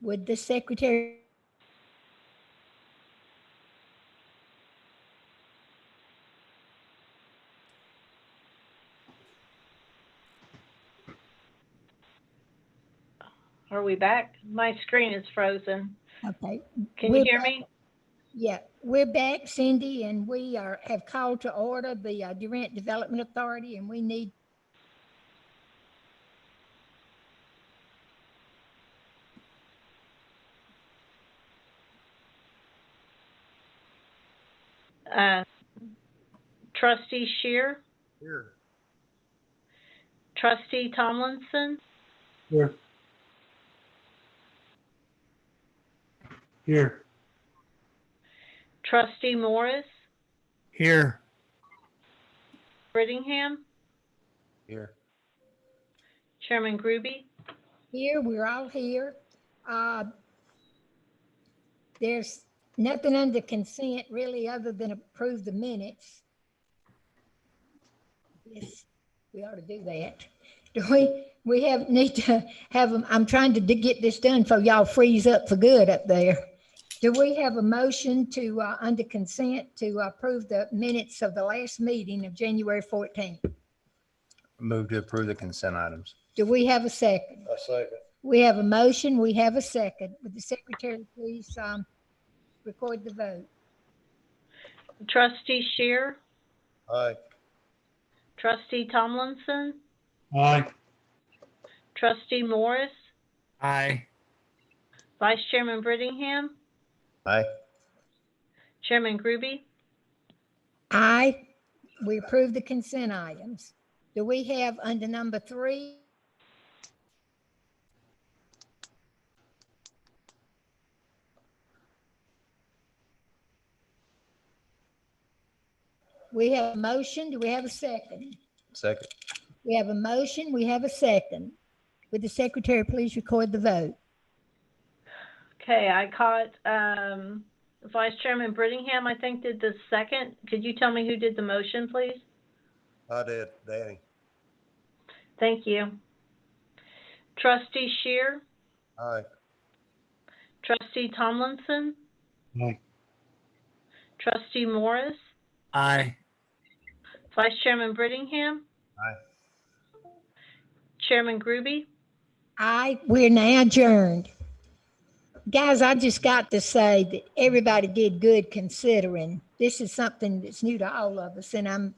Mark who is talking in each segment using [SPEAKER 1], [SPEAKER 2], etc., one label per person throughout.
[SPEAKER 1] Would the secretary
[SPEAKER 2] Are we back? My screen is frozen.
[SPEAKER 1] Okay,
[SPEAKER 2] Can you
[SPEAKER 1] We're
[SPEAKER 2] hear
[SPEAKER 1] back.
[SPEAKER 2] me?
[SPEAKER 1] yeah, we're back, Cindy, and we are, have called to order the uh, Durant Development Authority, and we need.
[SPEAKER 2] Uh, Trustee Shear,
[SPEAKER 3] Here.
[SPEAKER 2] trustee Tomlinson,
[SPEAKER 3] Here. Here.
[SPEAKER 2] trustee Morris,
[SPEAKER 3] Here.
[SPEAKER 2] Brittingham,
[SPEAKER 3] Here.
[SPEAKER 2] Chairman Groby.
[SPEAKER 1] Here, we're all here. Uh, There's nothing under consent really, other than approve the minutes. Yes, we ought to do that. Do we, we have, need to have, a- I'm trying to d- get this done before y'all freeze up for good up there. Do we have a motion to, uh, under consent to approve the minutes of the last meeting of January 14th?
[SPEAKER 4] Move to approve the consent items.
[SPEAKER 1] Do we have a second?
[SPEAKER 3] I second.
[SPEAKER 1] We have a motion, we have a second. Would the secretary please um, record the vote?
[SPEAKER 2] Trustee Shear,
[SPEAKER 3] Aye.
[SPEAKER 2] trustee Tomlinson,
[SPEAKER 3] Aye.
[SPEAKER 2] trustee Morris,
[SPEAKER 3] Aye.
[SPEAKER 2] vice chairman Brittingham,
[SPEAKER 4] Aye.
[SPEAKER 2] chairman Groby.
[SPEAKER 1] Aye, we approve the consent items. Do we have under number three? We have a motion, do we have a second?
[SPEAKER 4] Second.
[SPEAKER 1] We have a motion, we have a second. Would the secretary please record the vote?
[SPEAKER 2] Okay, I caught, um, vice chairman Brittingham, I think did the second. Could you tell me who did the motion, please?
[SPEAKER 3] I did, Danny.
[SPEAKER 2] Thank you. Trustee Shear,
[SPEAKER 3] Aye.
[SPEAKER 2] trustee Tomlinson,
[SPEAKER 3] Aye.
[SPEAKER 2] Trustee Morris,
[SPEAKER 3] Aye.
[SPEAKER 2] Vice Chairman Brittingham.
[SPEAKER 4] Aye.
[SPEAKER 2] Chairman Groby.
[SPEAKER 1] I, we're now adjourned. Guys, I just got to say that everybody did good considering. This is something that's new to all of us, and I'm,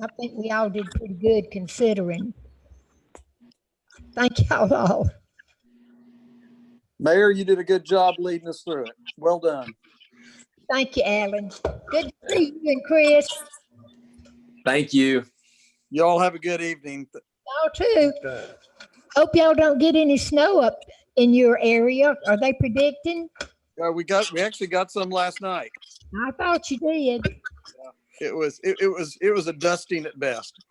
[SPEAKER 1] I think we all did pretty good considering. Thank y'all all.
[SPEAKER 5] Mayor, you did a good job leading us through it. Well done.
[SPEAKER 1] Thank you, Alan. Good to see you and Chris.
[SPEAKER 6] Thank you.
[SPEAKER 5] You all have a good evening.
[SPEAKER 1] Y'all too. Hope y'all don't get any snow up in your area. Are they predicting?
[SPEAKER 5] Uh, we got, we actually got some last night.
[SPEAKER 1] I thought you did.
[SPEAKER 5] It was, it, it was, it was a dusting at best.